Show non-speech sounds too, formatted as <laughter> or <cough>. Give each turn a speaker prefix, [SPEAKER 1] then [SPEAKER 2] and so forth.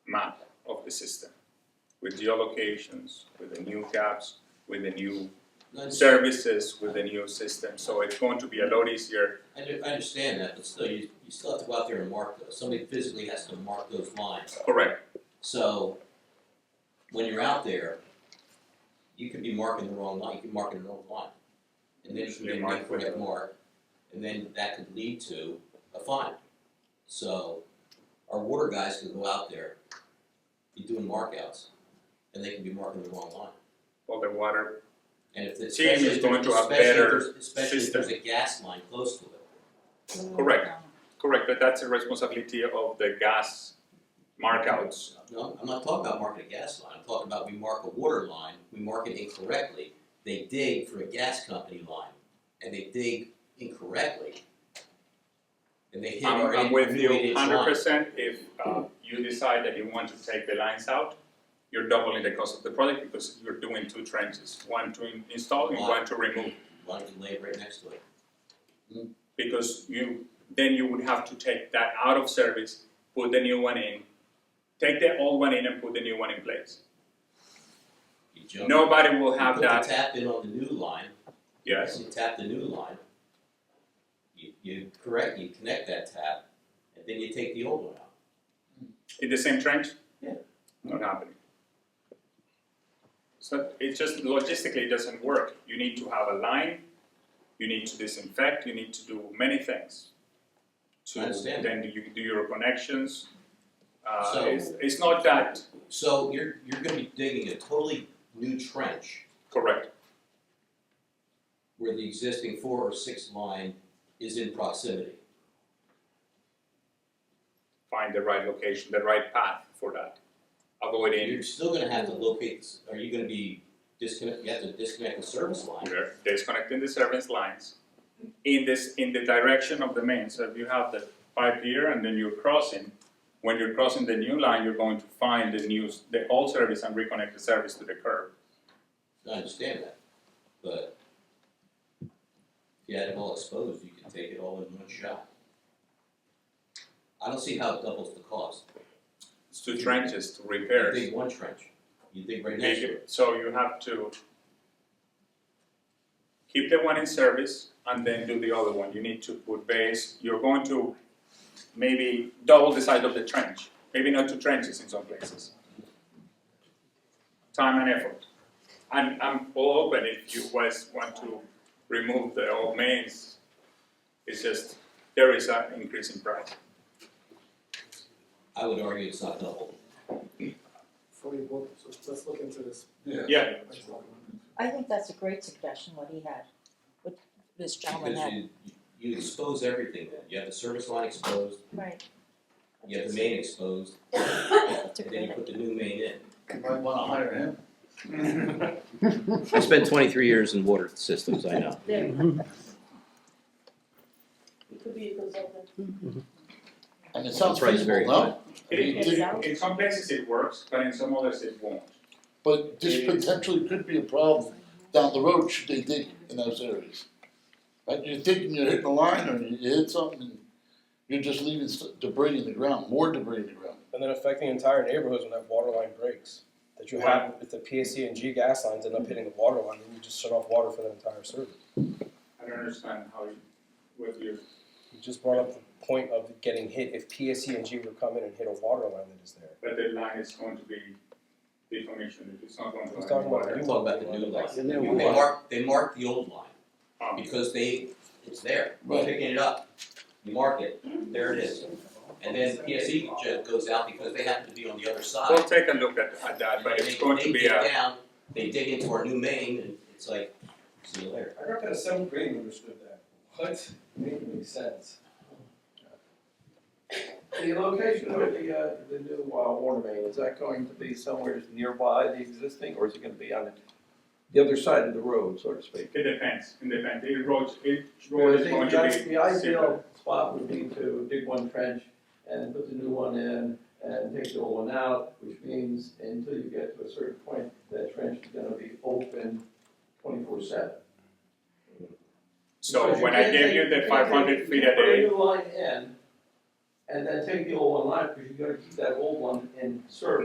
[SPEAKER 1] the system with geolocations, with the new caps, with the new services, with the new system. So it's going to be a lot easier.
[SPEAKER 2] I, do- I understand that, but still, you, you still have to go out there and mark those, somebody physically has to mark those lines.
[SPEAKER 1] Correct.
[SPEAKER 2] So, when you're out there, you could be marking the wrong line, you could be marking the wrong line. And then you can
[SPEAKER 1] They
[SPEAKER 2] get an
[SPEAKER 1] mark
[SPEAKER 2] incorrect
[SPEAKER 1] with-
[SPEAKER 2] mark, and then that could lead to a fine. So, our water guys can go out there, be doing markouts, and they can be marking the wrong line.
[SPEAKER 1] All the water.
[SPEAKER 2] And if,
[SPEAKER 1] Team is
[SPEAKER 2] especially if,
[SPEAKER 1] going
[SPEAKER 2] there's-
[SPEAKER 1] to have
[SPEAKER 2] especially if
[SPEAKER 1] better
[SPEAKER 2] there's, especially if
[SPEAKER 1] system.
[SPEAKER 2] there's a gas line close to it.
[SPEAKER 1] Correct. Correct, but that's the responsibility of the gas markouts.
[SPEAKER 2] No, I'm not talking about marking a gas line, I'm talking about we mark a water line, we mark it incorrectly. They dig for a gas company line, and they dig incorrectly. And they hit
[SPEAKER 1] I'm,
[SPEAKER 2] our
[SPEAKER 1] I'm
[SPEAKER 2] eight-
[SPEAKER 1] with
[SPEAKER 2] new eight-inch
[SPEAKER 1] you hundred
[SPEAKER 2] line.
[SPEAKER 1] percent. If uh, you decide that you want to take the lines out, you're doubling the cost of the project because you're doing two trenches, one to in- install and
[SPEAKER 2] Wow.
[SPEAKER 1] one to remove.
[SPEAKER 2] Why don't you lay it right next to it?
[SPEAKER 1] because you then you would have to take that out of service, put the new one in, take the old one in and put the new one in place.
[SPEAKER 2] You jump.
[SPEAKER 1] Nobody will have
[SPEAKER 2] You put
[SPEAKER 1] that.
[SPEAKER 2] the tap in on the new line,
[SPEAKER 1] Yes,
[SPEAKER 2] You tap the new line. You, you correct, you connect that tap, and then you take the old one out.
[SPEAKER 1] in the same trench.
[SPEAKER 2] Yeah.
[SPEAKER 1] Not happening. So it just logistically it doesn't work. You need to have a line. You need to disinfect. You need to do many things.
[SPEAKER 2] I understand.
[SPEAKER 1] Then do you do your connections. Uh,
[SPEAKER 2] So-
[SPEAKER 1] it's, it's not that
[SPEAKER 2] So you're, you're gonna be digging a totally new trench.
[SPEAKER 1] correct.
[SPEAKER 2] where the existing four or six line is in proximity.
[SPEAKER 1] Find the right location, the right path for that. Avoiding
[SPEAKER 2] You're still gonna have to locate, s- are you gonna be disconnect, you have to disconnect the service line?
[SPEAKER 1] They're disconnecting the service lines in this, in the direction of the main, so if you have the pipe here and then you're crossing, when you're crossing the new line, you're going to find the new, s- the old service and reconnect the service to the curb.
[SPEAKER 2] I understand that, but if you had it all exposed, you could take it all in one shot. I don't see how it doubles the cost.
[SPEAKER 1] It's two trenches to
[SPEAKER 2] You
[SPEAKER 1] repair.
[SPEAKER 2] dig one trench, you dig right next to it.
[SPEAKER 1] So you have to keep the one in service and then do the other one, you need to put base, you're going to maybe double the size of the trench, maybe not two trenches in some places. Time and effort. And I'm all open if you guys want to remove the old mains. It's just, there is an increase in price.
[SPEAKER 2] I would argue it's not double.
[SPEAKER 3] Before you vote, so let's look into this.
[SPEAKER 1] <laughs> Yeah,
[SPEAKER 4] I think that's a great suggestion, what he had, what this gentleman
[SPEAKER 2] Because
[SPEAKER 4] had,
[SPEAKER 2] you, you- you expose everything then. You have the service line exposed,
[SPEAKER 4] right.
[SPEAKER 2] you have the main exposed,
[SPEAKER 4] That's a
[SPEAKER 2] and then
[SPEAKER 4] great
[SPEAKER 2] you
[SPEAKER 4] idea.
[SPEAKER 2] put the new main in.
[SPEAKER 5] Might wanna hire him.
[SPEAKER 6] I spent 23 years in water systems, I know.
[SPEAKER 7] There. It could be a consultant.
[SPEAKER 5] And it sounds
[SPEAKER 6] That's right, it's very
[SPEAKER 5] feasible, no?
[SPEAKER 1] It- it- in some places it works, but in some others it won't.
[SPEAKER 5] But this potentially could be a problem down the road should they dig in those areas. Right, you're thinking you're hitting a line or you hit something and you're just leaving s- debris in the ground, more debris in the ground.
[SPEAKER 8] and then affecting entire neighborhoods when that water line breaks. That you have, if the PSC and G gas lines end up hitting the water line, then you just shut off water for that entire service.
[SPEAKER 1] I don't understand how you, what you
[SPEAKER 8] You just brought up the point of getting hit, if PSC and G were to come in and hit a water line that is there.
[SPEAKER 1] but the line is going to be deformation, it's not going to.
[SPEAKER 8] Who's talking about
[SPEAKER 2] We're
[SPEAKER 8] it?
[SPEAKER 2] talking about the new line.
[SPEAKER 6] The new
[SPEAKER 2] They
[SPEAKER 6] line.
[SPEAKER 2] mark, they mark the old line,
[SPEAKER 1] Um,
[SPEAKER 2] because they, it's there,
[SPEAKER 5] Right.
[SPEAKER 2] you're picking it up, you mark it, there it is. And then PSE ju- goes out because they happen to be on the other
[SPEAKER 1] We'll
[SPEAKER 2] side.
[SPEAKER 1] take a look at, at that, but it's going to be
[SPEAKER 2] They dig
[SPEAKER 1] a,
[SPEAKER 2] down, they dig into our new main, and it's like, see you later.
[SPEAKER 9] I grew up in the seventh grade and understood that. What? Made make sense. The location of the, uh, the new, uh, water main, is that going to be somewhere nearby the existing, or is it gonna be on the other side of the road, so to speak?
[SPEAKER 1] it depends, it depends, it roads, it
[SPEAKER 9] Well,
[SPEAKER 1] road
[SPEAKER 9] I
[SPEAKER 1] is going
[SPEAKER 9] think
[SPEAKER 1] to
[SPEAKER 9] the
[SPEAKER 1] be.
[SPEAKER 9] i- the ideal spot would be to dig one trench and put the new one in and take the old one out, which means until you get to a certain point, that trench is gonna be open twenty-four seven.
[SPEAKER 1] So
[SPEAKER 9] Because
[SPEAKER 1] when I
[SPEAKER 9] can't
[SPEAKER 1] gave
[SPEAKER 9] take-
[SPEAKER 1] you the
[SPEAKER 9] can't
[SPEAKER 1] five hundred
[SPEAKER 9] take-
[SPEAKER 1] feet
[SPEAKER 9] you
[SPEAKER 1] a
[SPEAKER 9] put
[SPEAKER 1] day,
[SPEAKER 9] new line in, and then take the old one line, because you gotta keep that old one in service.